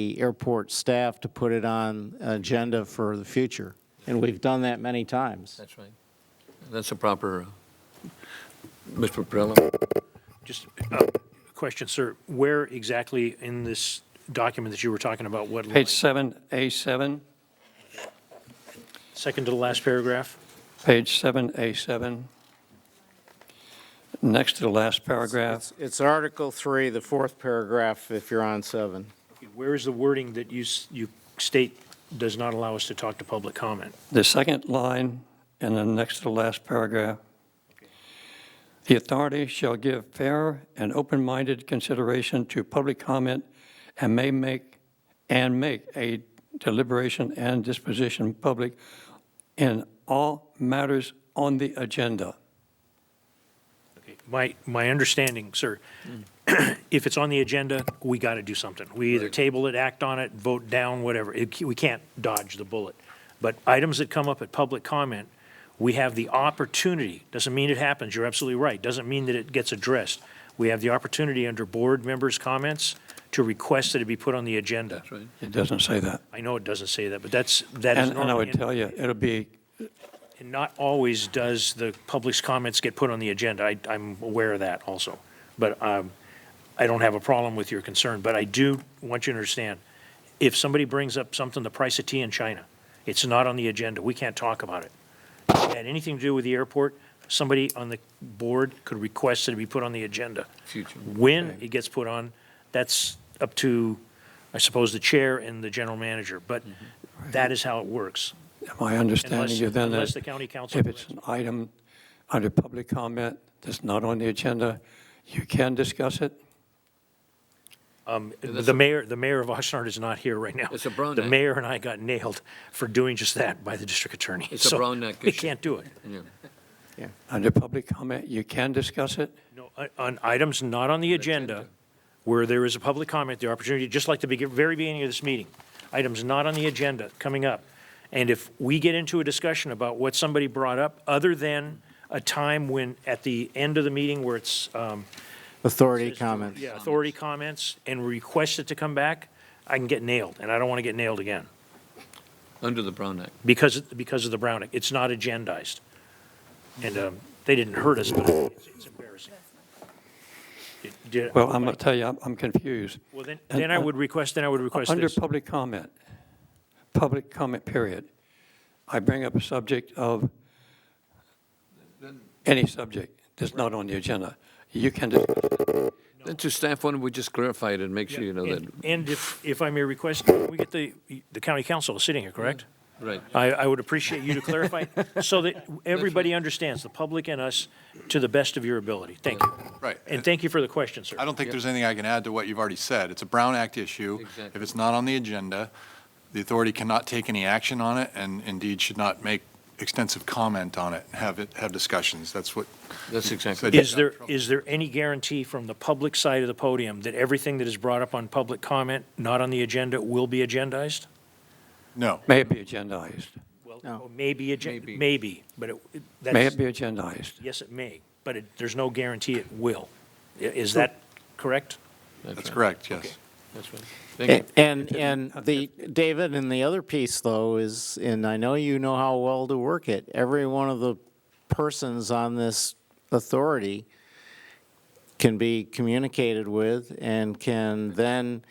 the airport staff to put it on agenda for the future. And we've done that many times. That's right. That's a proper, uh, Mr. Perrella? Just a question, sir. Where exactly in this document that you were talking about, what line? Page seven, A7, Second to the last paragraph? page seven, A7. Next to the last paragraph, It's- It's Article 3, the fourth paragraph, if you're on 7. Where is the wording that you, s- you state does not allow us to talk to public comment? the second line, and then next to the last paragraph. The authority shall give fair and open-minded consideration to public comment and may make, and make a deliberation and disposition public in all matters on the agenda. My, my understanding, sir, if it's on the agenda, we got to do something. We either table it, act on it, vote down, whatever. It- We can't dodge the bullet. But items that come up at public comment, we have the opportunity, doesn't mean it happens, you're absolutely right, doesn't mean that it gets addressed. We have the opportunity under board members' comments to request that it be put on the agenda. That's right. It doesn't say that. I know it doesn't say that, but that's, that is And and I normally. would tell you, it'll be And not always does the public's comments get put on the agenda. I, I'm aware of that also. But um, I don't have a problem with your concern, but I do want you to understand, if somebody brings up something, the price of tea in China, it's not on the agenda. We can't talk about it. If it had anything to do with the airport, somebody on the board could request that it be put on the agenda. Future. When it gets put on, that's up to, I suppose, the chair and the general manager, but that is how it works. My understanding Unless- is then unless that the county council if it's an item under public comment that's not on the agenda, you can discuss it. that's The mayor, the mayor of Oxnard is not here right now. It's a Brown The Act. mayor and I got nailed for doing just that by the district attorney. It's a So Brown Act We issue. can't do it. Yeah. Under public comment, you can discuss it. No, on- On items not on the agenda, Agenda. where there is a public comment, the opportunity, just like the begi- very beginning of this meeting, items not on the agenda coming up. And if we get into a discussion about what somebody brought up, other than a time when, at the end of the meeting where it's um, Authority comment. yeah, authority comments and request it to come back, I can get nailed, and I don't want to get nailed again. Under the Brown Act. because, because of the Brown Act. It's not agendized. And um, they didn't hurt us, but it's it's embarrassing. It did- Well, I'm going to tell you, I'm- I'm confused. Well, then, then I would request, then I would request Under this. public comment, public comment period, I bring up a subject of any subject that's not on the agenda. You can, dis- Then to staff, why don't we just clarify it and make sure you know that, And and if, if I may request, we get the, the county council is sitting here, correct? right. I, I would appreciate you to clarify, so that everybody understands, the public and us, to the best of your ability. Thank you. Right. And thank you for the question, sir. I don't think there's anything I can add to what you've already said. It's a Brown Act issue. Exactly. If it's not on the agenda, the authority cannot take any action on it and indeed should not make extensive comment on it, and have it, have discussions. That's what. That's you exactly- said. Is there, is there any guarantee from the public side of the podium that everything that is brought up on public comment, not on the agenda, will be agendized? No. may it be agendized, No. Well, maybe, agen- Maybe. maybe, but it- it, may that's, it be agendized. yes, it may, but it, there's no guarantee it will. I- Is that correct? That's right. correct, yes. That's right. Thank you. A- And, and the, David, and the other piece, though, is, and I know you know how well to work it, every one of the persons on this authority can be communicated with and can then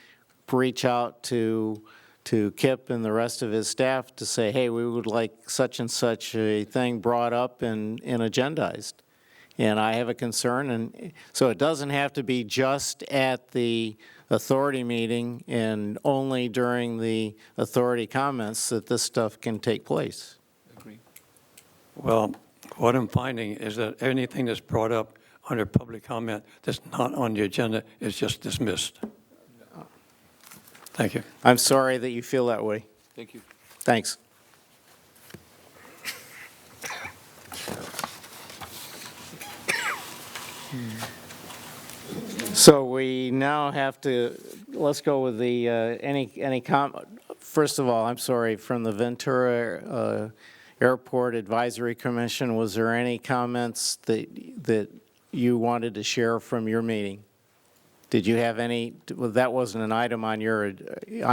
reach out to, to Kip and the rest of his staff to say, hey, we would like such and such a thing brought up and, and agendized. And I have a concern, and so it doesn't have to be just at the authority meeting and only during the authority comments that this stuff can take place. Agree. Well, what I'm finding is that anything that's brought up under public comment that's not on the agenda is just dismissed. Thank you. I'm sorry that you feel that way. Thank you. Thanks. So we now have to, let's go with the, uh, any, any com, first of all, I'm sorry, from the Ventura uh, Airport Advisory Commission, was there any comments that, that you wanted to share from your meeting? Did you have any, well, that wasn't an item on your, uh,